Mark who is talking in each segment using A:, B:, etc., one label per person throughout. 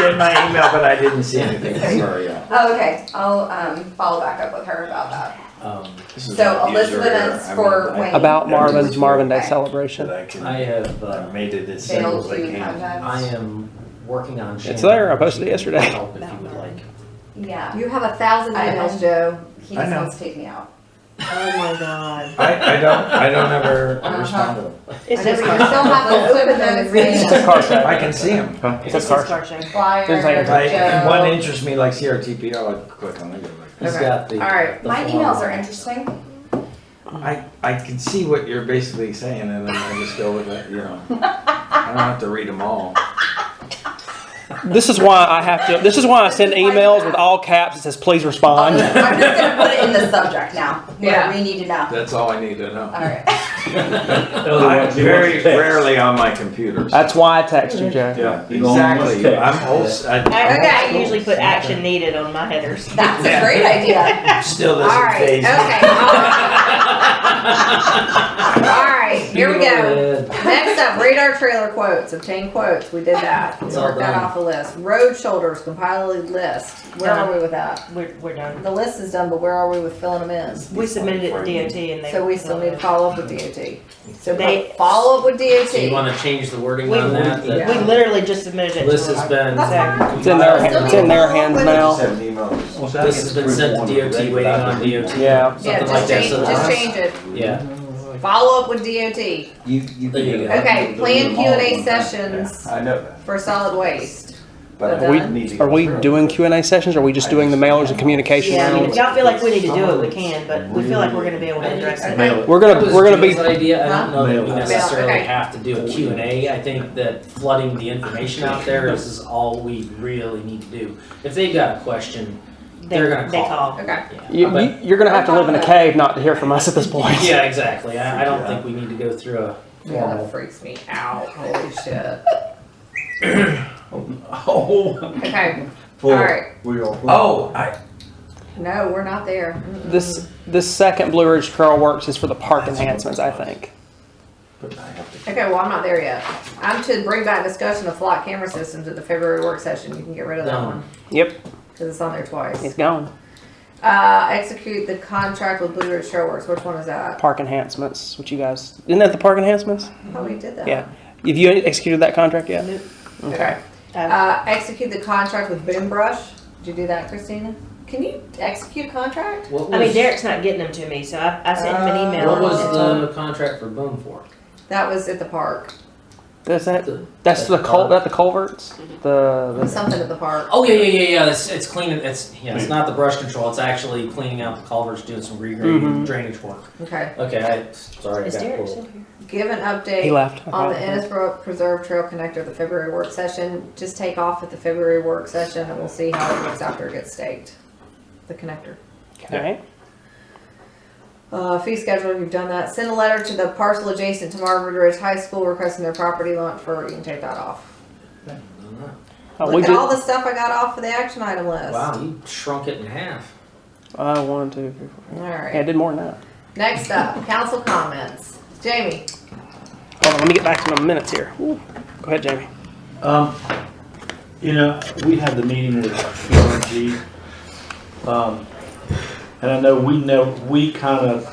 A: in my email, but I didn't see anything, sorry, yeah.
B: Oh, okay, I'll, um, follow back up with her about that.
A: Um,
C: This is
B: So
C: not user
B: Elizabeth
C: error.
B: is
C: I
B: for
C: mean, I-
B: Wayne.
D: About
C: I'm
D: Marvin's
C: just-
D: Marvin Day
B: Okay.
D: celebration.
C: That I can-
A: I have,
C: I
A: uh,
C: made it as simple
B: Failed
C: as I
B: to
C: can.
A: I
B: contact.
A: am working on.
D: It's
A: Shannon.
D: there, I posted it yesterday.
A: Help If you would like.
B: Yeah.
E: You have a thousand
B: I
E: emails,
B: know,
E: Joe.
B: Joe, he
A: I
B: just
A: know.
B: wants to take me out.
E: Oh my god.
A: I, I don't, I don't ever
C: Uh-huh.
A: respond to them.
B: I never, you still haven't opened those things.
D: It's a car
A: I
D: show.
A: can see them.
D: It's a car show.
B: Flyer,
D: Didn't take it.
A: If I- if one
B: Joe.
A: interests me, like CRTPO, I click on it. like-
B: Okay.
A: got the.
B: Alright,
A: the
B: my
A: form.
B: emails are interesting.
A: I, I can see what you're basically saying and then I just go with it, you know. I don't have to read them all.
D: This is why I have to, this is why I send emails with all caps that says, please
B: I'm
A: Uh,
D: respond.
B: just gonna put it in the subject now,
E: Yeah.
B: what we need to know.
A: That's all I need to know.
B: Alright,
A: I'm very rarely on my computer. so-
D: That's why I text you, Joe.
A: Yeah,
C: You don't want
A: exactly.
C: to-
A: I'm old. s- I- I'm old
F: I, I
A: school.
F: usually put action needed on my headers.
B: that's a
A: Yeah.
B: great idea.
A: Still doesn't
B: Alright,
A: phase
B: okay.
A: me.
B: Alright, here we go.
A: go.
B: Next up, radar trailer quotes, obtain quotes, we did that, we
A: It's all
B: worked that
A: done.
B: off the list. Road shoulders, compile a list, where are we with that?
F: We're, we're done.
B: The list is done, but where are we with filling them
F: We submitted it to DOT and
B: in?
F: they.
B: So we still need to follow up with DOT. So
F: They-
B: fo- follow up with
G: So you
B: DOT.
G: wanna change the wording
F: We-
G: on that?
B: yeah.
F: We
G: That
F: literally just submitted it to
G: This has
F: them.
G: been,
D: It's in their, it's in their hands now.
G: this has been sent to DOT, waiting on DOT.
D: Yeah.
B: Yeah,
G: Something like that,
B: just change,
G: so
B: just
G: that's-
B: change it,
G: yeah.
B: follow up with DOT.
C: You, you.
G: There you
C: can-
G: go.
B: Okay, plan Q and A
C: Yeah,
B: sessions
C: I know that,
B: for solid waste.
C: but
B: Are
C: I
B: we-
C: need to.
D: Are we
C: go through
D: doing
C: it.
D: Q and A sessions? Or are we just doing the mailers and communication
F: Yeah, I mean, if
D: rounds?
F: y'all feel like we need to do it, we can, but we feel like we're gonna be able to address it.
B: Mail
D: We're gonna-
G: That was
D: we're gonna be-
G: Jim's idea, I don't know that we
C: Mail.
G: necessarily
B: Okay.
G: have to do a Q and A, I think that flooding the information out there is, is all we really need to do. If they've got a question,
F: They-
G: They're gonna
F: They
G: call.
F: call.
B: Okay,
D: You, you- you're gonna have to live in a cave not to hear from us at this point.
G: yeah, exactly, I, I don't think we need to go through a
B: yeah,
G: formal.
B: that freaks me out, holy shit.
A: Oh,
B: Okay,
C: Full
B: Alright.
C: wheel.
A: oh, I,
B: no, we're not there.
D: This, this second Blue Ridge Trail Works is for the park enhancements, I think.
C: But I have to-
B: Okay, well, I'm not there yet. I'm to bring back discussion of flock camera systems at the February work session. You can get rid of that
G: No.
B: one
D: Yep,
B: because it's on there
D: it's
B: twice.
D: gone.
B: Uh, execute the contract with Blue Ridge Showworks. Which one is that?
D: Park enhancements, what you guys, isn't that the park enhancements?
B: Oh, we did that.
D: Yeah. Have you executed that contract yet?
B: Okay.
F: Uh,
B: Uh, execute the contract with Boom Brush. Did you do that, Christina? Can you execute contract?
G: What
F: I mean,
G: was,
F: Derek's not getting them to me, so I, I sent him an email.
G: what was
F: and-
G: the contract for Boom for?
B: That was at the park.
D: That's that,
G: Uh,
D: that's the cul, that the culverts, the,
B: Something at the park.
G: Oh yeah, yeah, yeah, yeah. It's it's cleaning. It's yeah. It's not the brush control. It's actually cleaning out the culverts, doing some regrading,
D: Mhm.
G: drainage work.
B: Okay.
G: Okay, I sorry, I
F: uh, Is
G: got
F: Derek
G: pulled.
F: still here?
B: Give an
D: the, he
B: update
D: left.
B: on the Innisbrook Preserve Trail Connector, the February work session. Just take off at the February work session and we'll see how it looks after it gets staked. The connector.
D: Okay.
B: Uh, fee schedule, you've done that. Send a letter to the parcel adjacent to Marvin Ridge High School requesting their property launch for, you can take that off.
D: Uh, we
B: Look at
D: did,
B: all the stuff I got off of the action item list.
G: Wow, you shrunk it in half.
D: uh, one, two, three, four. Yeah, I
B: Alright,
D: did more than that.
B: next up, council comments. Jamie,
D: Hold on, let me get back to my minutes here. Ooh. Go ahead, Jamie.
C: Um, you know, we had the meeting with PRG. Um, and I know we know, we kind of,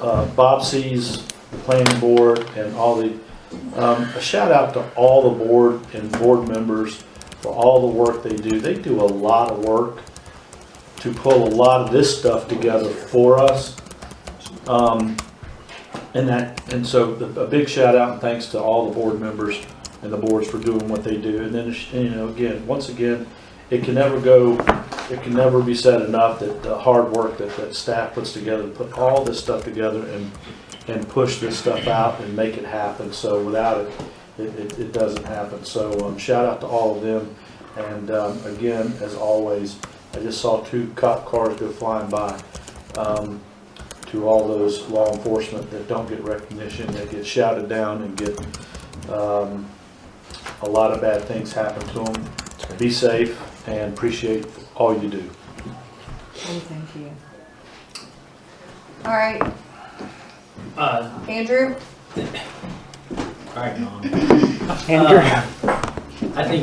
C: uh, Bobsey's planning board and all the, um, a shout out to all the board and board members for all the work they do. They do a lot of work to pull a lot of this stuff together for us. Um, and that, and so the- a big shout out and thanks to all the board members and the boards for doing what they do. And then, you know, again, once again, it can never go, it can never be said enough that the hard work that, that staff puts together, to put all this stuff together and, and push this stuff out and make it happen. So without it, it, it, it doesn't happen. So, um, shout out to all of them. And, um, again, as always, I just saw two cop cars go flying by. Um, to all those law enforcement that don't get recognition, that get shouted down and get, um, a lot of bad things happen to them. Be safe and appreciate all you do.
B: and thank you. Alright,
G: Uh,
B: Andrew?
G: all right, Mom.
D: Andrew.
G: I think